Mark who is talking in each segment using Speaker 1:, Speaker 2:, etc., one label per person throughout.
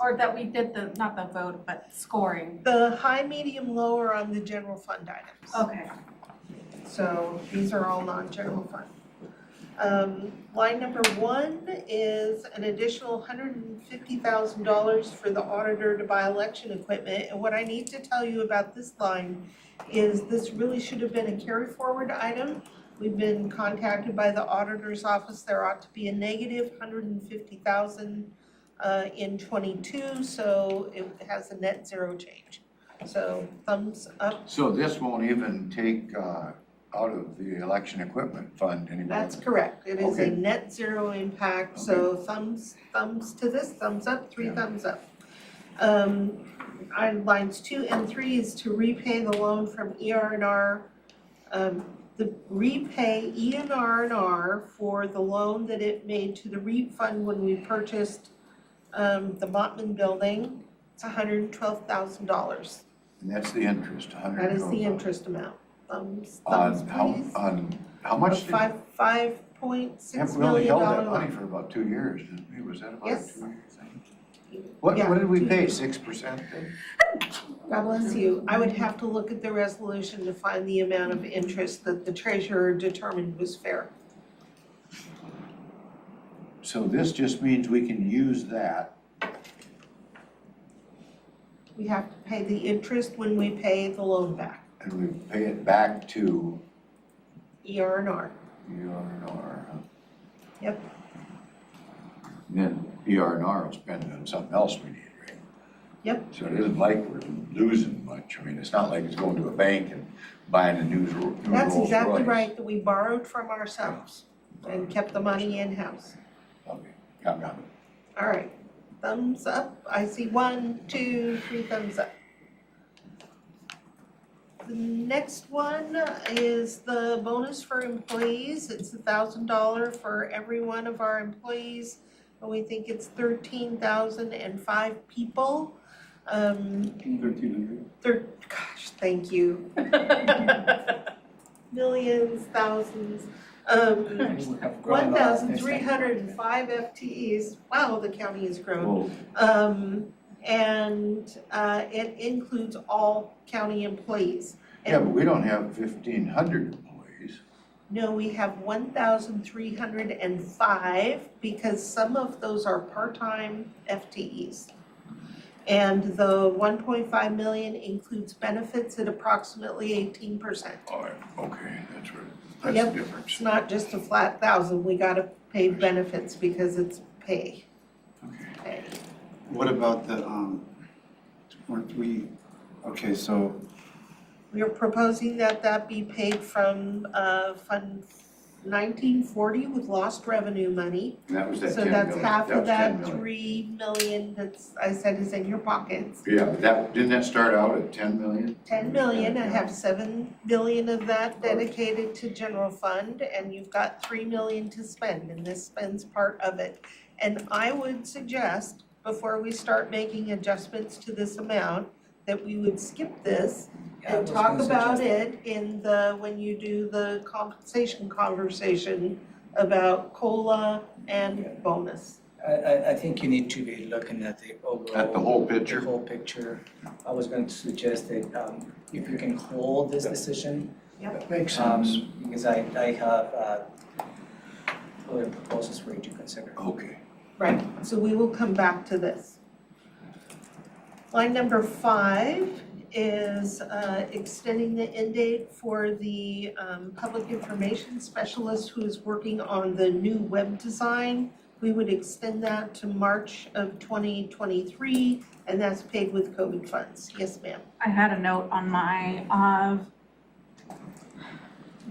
Speaker 1: Or that we did the, not the vote, but scoring.
Speaker 2: The high, medium, low are on the general fund items.
Speaker 1: Okay.
Speaker 2: So these are all non-general fund. Um, line number one is an additional hundred and fifty thousand dollars for the auditor to buy election equipment. And what I need to tell you about this line is this really should have been a carry forward item. We've been contacted by the auditor's office, there ought to be a negative hundred and fifty thousand uh in twenty-two, so it has a net zero change. So thumbs up,
Speaker 3: So this won't even take uh, out of the election equipment fund anymore?
Speaker 2: That's correct, it is a
Speaker 3: Okay.
Speaker 2: net zero impact, so thumbs, thumbs to this, thumbs up, three
Speaker 3: Yeah.
Speaker 2: thumbs up. Um, our lines two and three is to repay the loan from ER and R. Um, the repay E and R and R for the loan that it made to the REAP fund when we purchased um, the Mottman building, it's hundred and twelve thousand dollars,
Speaker 3: And that's the interest, a hundred
Speaker 2: that
Speaker 3: and
Speaker 2: is
Speaker 3: twelve
Speaker 2: the
Speaker 3: thousand.
Speaker 2: interest amount, thumbs, thumbs
Speaker 3: On
Speaker 2: please.
Speaker 3: how, on how much?
Speaker 2: Of
Speaker 3: did-
Speaker 2: Five, five point six
Speaker 3: Yeah, we only
Speaker 2: million
Speaker 3: held
Speaker 2: dollar
Speaker 3: that
Speaker 2: loan.
Speaker 3: money for about two years, didn't we? Was that about a
Speaker 2: Yes.
Speaker 3: two year thing? What,
Speaker 2: Yeah,
Speaker 3: what did we
Speaker 2: two
Speaker 3: pay,
Speaker 2: years.
Speaker 3: six percent then?
Speaker 2: God bless you. I would have to look at the resolution to find the amount of interest that the treasurer determined was fair.
Speaker 3: So this just means we can use that,
Speaker 2: We have to pay the interest when we pay the loan back,
Speaker 3: and we pay it back to
Speaker 2: ER and R.
Speaker 3: E ERNR, huh?
Speaker 2: Yep.
Speaker 3: And Then E ERNR will spend it on something else we need, right?
Speaker 2: Yep.
Speaker 3: So it isn't like we're losing much, I mean, it's not like it's going to a bank and buying a new Ro- new Rolls Royce.
Speaker 2: That's exactly right, that we borrowed from ourselves and kept the money in-house.
Speaker 3: Okay, got got it.
Speaker 2: All right, thumbs up. I see one, two, three thumbs up. The next one is the bonus for employees. It's a thousand dollar for every one of our employees. And we think it's thirteen thousand and five people. Um,
Speaker 4: Thirteen hundred.
Speaker 2: thir- gosh, thank you. Millions, thousands. Um, one thousand three hundred and five FTEs. Wow, the county has grown.
Speaker 3: Well,
Speaker 2: Um, and, uh, it includes all county employees.
Speaker 3: yeah, but we don't have fifteen hundred employees.
Speaker 2: No, we have one thousand three hundred and five because some of those are part-time FTEs. And the one point five million includes benefits at approximately eighteen percent.
Speaker 3: All right, okay, that's
Speaker 2: Yep.
Speaker 3: right, that's the
Speaker 2: It's
Speaker 3: difference.
Speaker 2: not just a flat thousand, we gotta pay benefits because it's pay,
Speaker 3: Okay.
Speaker 2: pay.
Speaker 4: What about the, um, weren't we, okay, so
Speaker 2: We are proposing that that be paid from uh Fund nineteen forty with lost revenue money.
Speaker 3: And that was that
Speaker 2: So
Speaker 3: ten
Speaker 2: that's
Speaker 3: million,
Speaker 2: half
Speaker 3: that
Speaker 2: of
Speaker 3: was ten
Speaker 2: that
Speaker 3: million.
Speaker 2: three million that's, I said is in your pockets.
Speaker 3: Yeah, but that, didn't that start out at ten million?
Speaker 2: Ten million, I
Speaker 3: Yeah.
Speaker 2: have seven billion of that dedicated to general fund and you've got three million to spend and this spends part of it. And I would suggest, before we start making adjustments to this amount, that we would skip this
Speaker 4: Yeah, I
Speaker 2: and
Speaker 4: was
Speaker 2: talk
Speaker 4: gonna
Speaker 2: about
Speaker 4: suggest
Speaker 2: it in the, when you do the compensation conversation about COLA
Speaker 5: Yeah.
Speaker 2: and bonus.
Speaker 5: I, I, I think you need to be looking at the overall.
Speaker 3: At the whole
Speaker 5: the
Speaker 3: picture?
Speaker 5: whole picture. I was going to suggest that, um, if you can hold this decision,
Speaker 3: That makes sense.
Speaker 5: um, because I, I have, uh, other proposals for you to consider.
Speaker 3: Okay.
Speaker 2: Right, so we will come back to this. Line number five is uh, extending the end date for the um, public information specialist who is working on the new web design. We would extend that to March of 2023, and that's paid with COVID funds. Yes, ma'am.
Speaker 1: I had a note on my of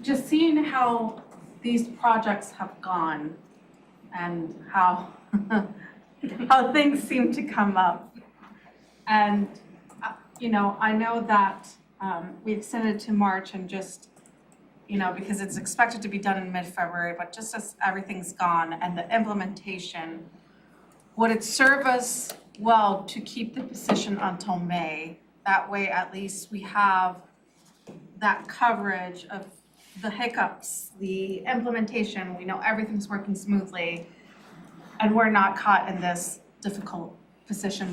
Speaker 1: just seeing how these projects have gone and how how things seem to come up. And uh, you know, I know that um we extended to March and just you know, because it's expected to be done in mid-February, but just as everything's gone and the implementation, would it serve us well to keep the position until May? That way, at least we have that coverage of the hiccups, the implementation, we know everything's working smoothly. And we're not caught in this difficult position